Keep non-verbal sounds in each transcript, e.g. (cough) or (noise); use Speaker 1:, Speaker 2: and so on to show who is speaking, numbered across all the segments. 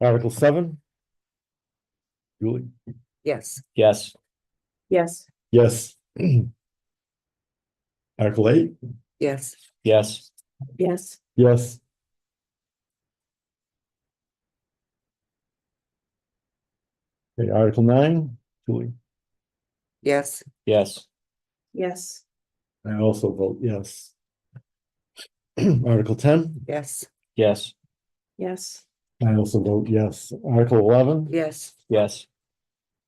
Speaker 1: Article seven? Julie?
Speaker 2: Yes.
Speaker 3: Yes,
Speaker 2: Yes.
Speaker 1: Yes. (clears throat) Article eight?
Speaker 2: Yes.
Speaker 3: yes,
Speaker 2: Yes.
Speaker 1: Yes. Okay, Article nine, Julie?
Speaker 2: Yes.
Speaker 3: yes,
Speaker 2: Yes.
Speaker 1: I also vote yes. (clears throat) Article ten,
Speaker 2: Yes.
Speaker 3: yes,
Speaker 2: Yes.
Speaker 1: I also vote yes. Article eleven,
Speaker 2: Yes.
Speaker 3: yes,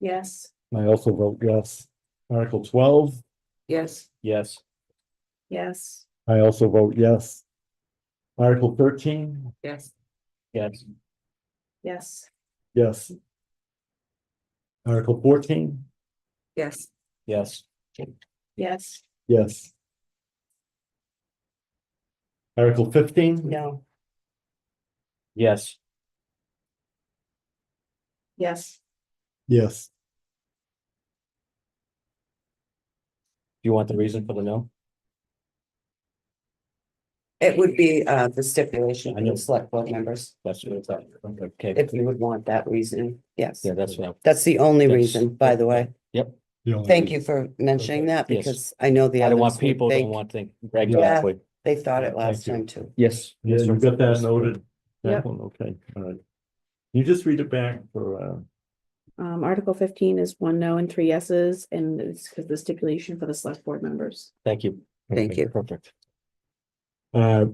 Speaker 2: Yes.
Speaker 1: I also vote yes. Article twelve,
Speaker 2: Yes.
Speaker 3: yes,
Speaker 2: Yes.
Speaker 1: I also vote yes. Article thirteen,
Speaker 2: Yes.
Speaker 3: yes,
Speaker 2: Yes.
Speaker 1: yes. Article fourteen,
Speaker 2: Yes.
Speaker 3: yes,
Speaker 2: Yes.
Speaker 1: yes. Article fifteen?
Speaker 2: No.
Speaker 3: yes,
Speaker 2: Yes.
Speaker 1: Yes.
Speaker 3: Do you want the reason for the no?
Speaker 4: It would be uh the stipulation
Speaker 3: I
Speaker 4: for
Speaker 3: know.
Speaker 4: the select board members,
Speaker 3: That's what it's at. Okay,
Speaker 4: if you would want that reason, yes.
Speaker 3: yeah, that's what.
Speaker 4: That's the only
Speaker 3: Yes.
Speaker 4: reason, by the way.
Speaker 1: The only
Speaker 4: Thank you
Speaker 1: reason-
Speaker 4: for mentioning that
Speaker 3: Yes.
Speaker 4: because I know the
Speaker 3: I I
Speaker 4: others
Speaker 3: don't want
Speaker 4: would
Speaker 3: people,
Speaker 4: think-
Speaker 3: don't want things. Exactly.
Speaker 4: They thought it last
Speaker 1: Thank you.
Speaker 4: time too.
Speaker 3: Yes.
Speaker 1: Yeah, you got that noted.
Speaker 2: Yep.
Speaker 1: That one, okay, all right. You just read it back for, uh,
Speaker 2: Um, Article fifteen is one no and three yeses, and it's because the stipulation for the select board members.
Speaker 3: Thank you.
Speaker 4: Thank
Speaker 3: Okay,
Speaker 4: you.
Speaker 3: Perfect.
Speaker 1: uh,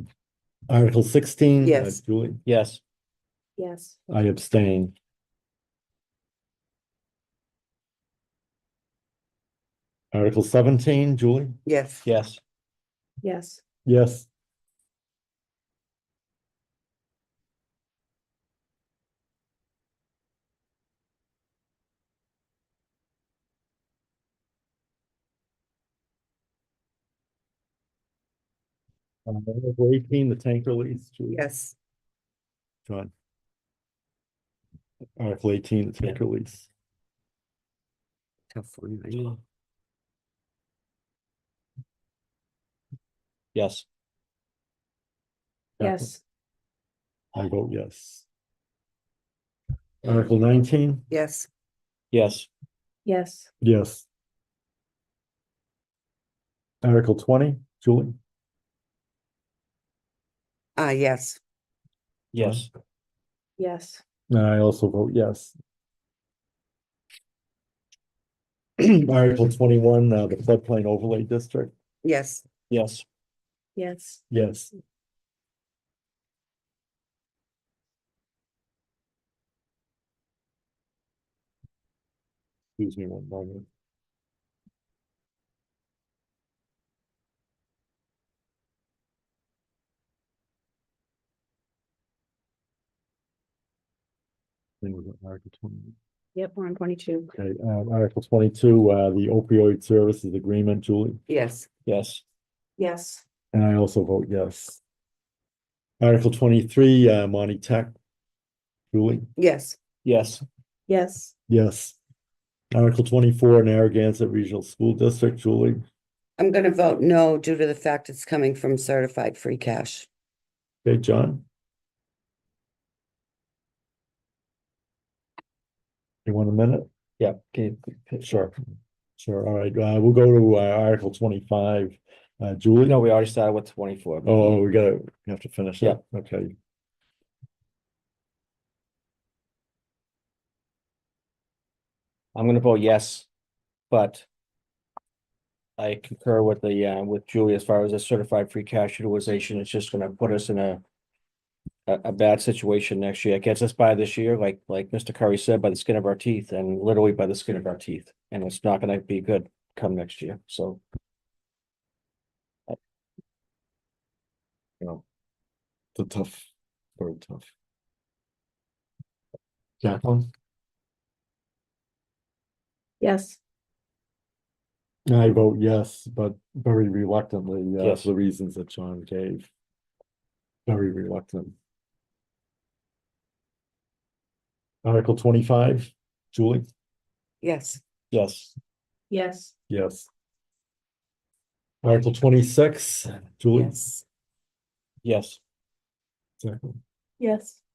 Speaker 1: (clears throat) Article sixteen. uh,
Speaker 4: Yes.
Speaker 1: Julie,
Speaker 3: Yes,
Speaker 2: Yes.
Speaker 1: I abstain. Article seventeen, Julie?
Speaker 4: Yes,
Speaker 3: yes,
Speaker 2: Yes.
Speaker 1: Yes. Uh, Article Eighteen, the tank release, Julie?
Speaker 4: yes,
Speaker 1: John. Article eighteen, the tank release.
Speaker 4: tough one, I know.
Speaker 3: yes,
Speaker 2: Yes.
Speaker 1: I vote yes. Article nineteen,
Speaker 4: yes,
Speaker 3: yes,
Speaker 2: Yes.
Speaker 1: yes. Article twenty, Julie?
Speaker 4: ah, yes,
Speaker 3: yes,
Speaker 2: Yes.
Speaker 1: I also vote yes. (clears throat) Article twenty-one, uh, the floodplain overlay district,
Speaker 4: yes,
Speaker 3: yes,
Speaker 2: Yes.
Speaker 1: yes. Excuse me one moment. Thing was Article twenty.
Speaker 2: Yep, we're on twenty-two.
Speaker 1: Okay, um, Article twenty-two, uh, the opioid services agreement, Julie,
Speaker 4: yes,
Speaker 3: yes,
Speaker 2: Yes.
Speaker 1: and I also vote yes. Article twenty-three, uh, Monty Tech. Julie,
Speaker 4: yes,
Speaker 3: yes,
Speaker 2: Yes.
Speaker 1: yes. Article twenty-four, Narragansett Regional School District, Julie,
Speaker 4: I'm gonna vote no due to the fact it's coming from certified free cash.
Speaker 1: okay, John? You want a minute?
Speaker 3: yeah, okay,
Speaker 1: Sure. Sure, all right, uh, we'll go to, uh, Article twenty-five, uh, Julie?
Speaker 3: no, we already started with twenty-four.
Speaker 1: Oh, we gotta, we have to finish
Speaker 3: Yeah.
Speaker 1: that, okay.
Speaker 3: I'm gonna vote yes, but I concur with the, uh, with Julie as far as the certified free cash utilization, it's just gonna put us in a a, a bad situation next year. It gets us by this year, like, like Mr. Curry said, by the skin of our teeth and literally by the skin of our teeth. And it's not gonna be good come next year, so. I- You know,
Speaker 1: The tough, very tough. Jacqueline?
Speaker 2: Yes.
Speaker 1: I vote yes, but very reluctantly, uh,
Speaker 3: Yes.
Speaker 1: for the reasons that John gave. Very reluctant. Article twenty-five, Julie?
Speaker 4: Yes,
Speaker 3: yes,
Speaker 2: Yes.
Speaker 1: Yes. Article twenty-six, Julie?
Speaker 4: yes,
Speaker 3: yes,
Speaker 1: Second.
Speaker 2: Yes.